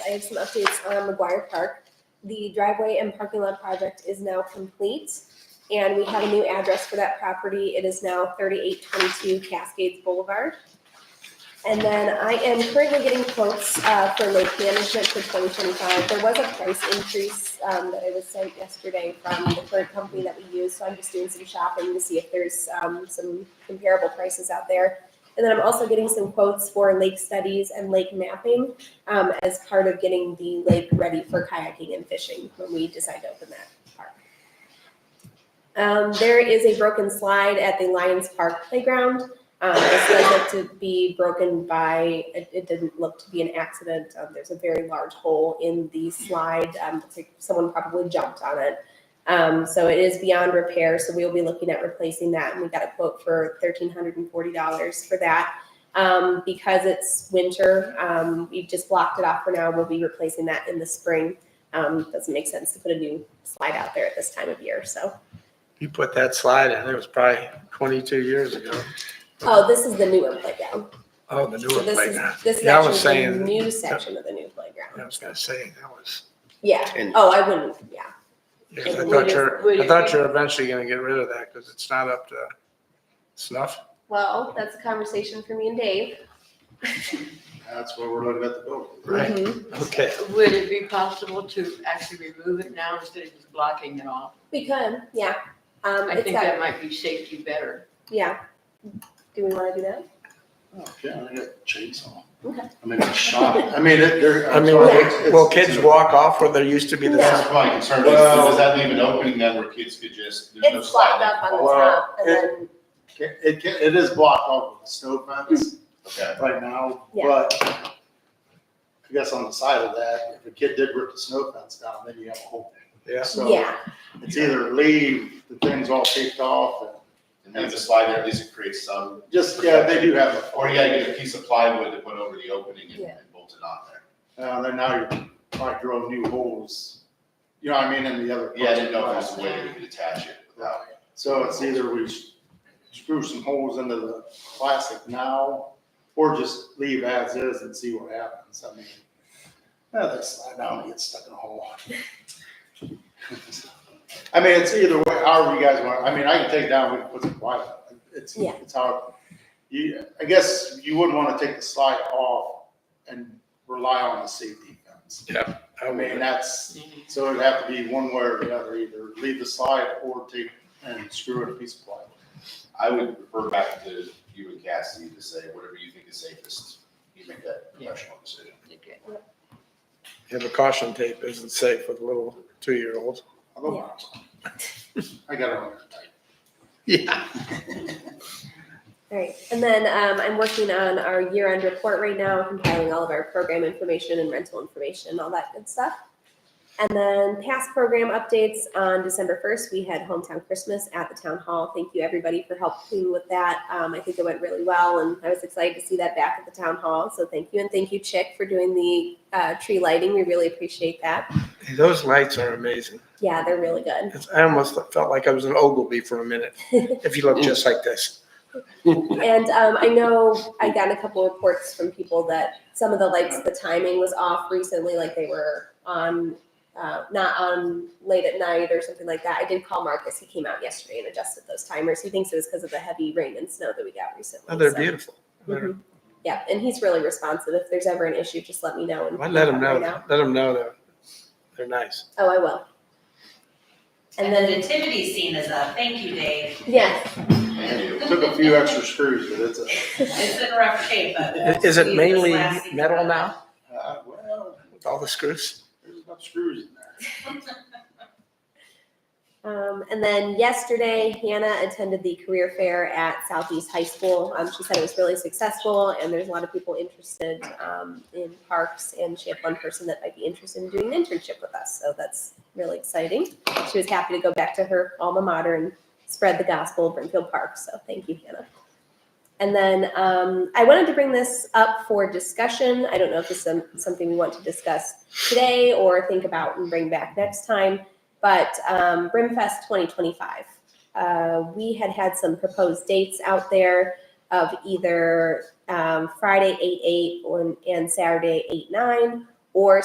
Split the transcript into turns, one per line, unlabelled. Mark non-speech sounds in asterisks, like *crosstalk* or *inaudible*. I have some updates on McGuire Park. The driveway and parking lot project is now complete, and we have a new address for that property. It is now thirty-eight twenty-two Cascades Boulevard. And then I am currently getting quotes uh, for lake management for twenty twenty-five. There was a price increase um, that I was sent yesterday from the current company that we use, so I'm just doing some shopping to see if there's um, some comparable prices out there. And then I'm also getting some quotes for lake studies and lake mapping um, as part of getting the lake ready for kayaking and fishing when we decide to open that park. Um, there is a broken slide at the Lions Park playground. Um, it's likely to be broken by, it, it didn't look to be an accident. Um, there's a very large hole in the slide. Um, looks like someone probably jumped on it. Um, so it is beyond repair. So we'll be looking at replacing that. And we got a quote for $1,340 for that. Um, because it's winter, um, we've just blocked it off for now. We'll be replacing that in the spring. Um, doesn't make sense to put a new slide out there at this time of year. So,
You put that slide in, it was probably twenty-two years ago.
oh, this is the newer playground.
Oh, the
So
newer
this is,
playground.
this is
Yeah, I was
actually the
saying-
new section of the new playground.
I was gonna say, that was,
Yeah.
And-
Oh, I wouldn't, yeah.
yeah,
It
I
would-
thought
would-
you're, I thought you're eventually gonna get rid of that because it's not up to snuff.
Well, that's a conversation for me and Dave.
That's why we're looking at the building.
Right,
Mhm.
okay.
Would it be possible to actually remove it now instead of just blocking it off?
We could, yeah. Um,
I
it's
think
got-
that might be safety better.
yeah. Do we want to do that?
Oh, Yeah, I got a chainsaw.
Okay.
I mean, it's shot, I mean, it, they're.
I mean, will, will kids walk off where there used to be
No.
the?
That's my concern, is
Well-
does that leave an opening then where kids could just, there's no
It's
slide
flapped
that
up
can
on the
fall?
top and
Well, it-
then,
It, ca- it is blocked off with a snow fence
Okay,
right now,
Yeah.
but I guess on the side of that, if a kid did rip the snow fence down, then you have a whole
Yeah,
thing. So
yeah,
it's either leave, the thing's all taped off
and leave the slide there, at least it creates some,
and just, yeah, they do have,
or you gotta get a piece of plywood to put over the opening and
Yeah.
and bolt it on there.
a- uh, then now you're probably drilling new holes. You know what I mean, in the other.
Yeah, I didn't know if there
parts
was
of
a way that we could attach it
the house.
without.
So it's either we screw some holes into the plastic now, or just leave as is and see what happens, I mean. Yeah, that slide down, get stuck in a hole. *laughs* I mean, it's either way, however you guys want, I mean, I can take it down, we can put some plywood, it's,
Yeah.
it's how, you, I guess you wouldn't wanna take the slide off and rely on the safety fence. I
I
mean,
mean,
that's, so it'd have to be one way or the other, either leave the slide or take and screw in a piece of plywood.
I would refer back to you and Cassie to say, whatever you think is safest, you make that professional decision.
Okay.
yeah, the caution tape isn't safe with little two-year-olds.
Although, I got it on there tight.
Yeah.
all right. And then, um, I'm working on our year-end report right now, compiling all of our program information and rental information, all that good stuff. And then past program updates on December first, we had hometown Christmas at the town hall. Thank you everybody for helping with that. Um, I think it went really well and I was excited to see that back at the town hall. So thank you. And thank you Chick for doing the, uh, tree lighting. We really appreciate that.
Those lights are amazing.
Yeah, they're really good.
It's- I almost felt like I was an Ogilvy for
*laughs*
a minute, if you look just like this.
And um, I know I got a couple reports from people that some of the lights, the timing was off recently, like they were on, uh, not on late at night or something like that. I did call Marcus. He came out yesterday and adjusted those timers. He thinks it was because of the heavy rain and snow that we got recently.
Oh, they're
so-
beautiful. They're-
Mhm. Yeah, and he's really responsive. If there's ever an issue, just let me know. And
I let them know,
Right
let
now.
them know they're, they're nice.
Oh, I will. And
And the
then,
nativity scene is up. Thank you, Dave.
yes,
Thank you.
Took a few extra screws, but it's a,
It's in rough shape, but.
I- Is it
These are
mainly
the last season.
metal now
uh, well,
with all the screws?
there's enough screws in there.
Um, and then yesterday, Hannah attended the career fair at Southeast High School. Um, she said it was really successful, and there's a lot of people interested um, in parks. And she had one person that might be interested in doing an internship with us, so that's really exciting. She was happy to go back to her alma mater and spread the gospel of Brimfield Park. So thank you, Hannah. And then um, I wanted to bring this up for discussion. I don't know if this is some- something we want to discuss today or think about and bring back next time but um, Brimfest 2025. Uh, we had had some proposed dates out there of either um, Friday 8 8 and Saturday 8 9 or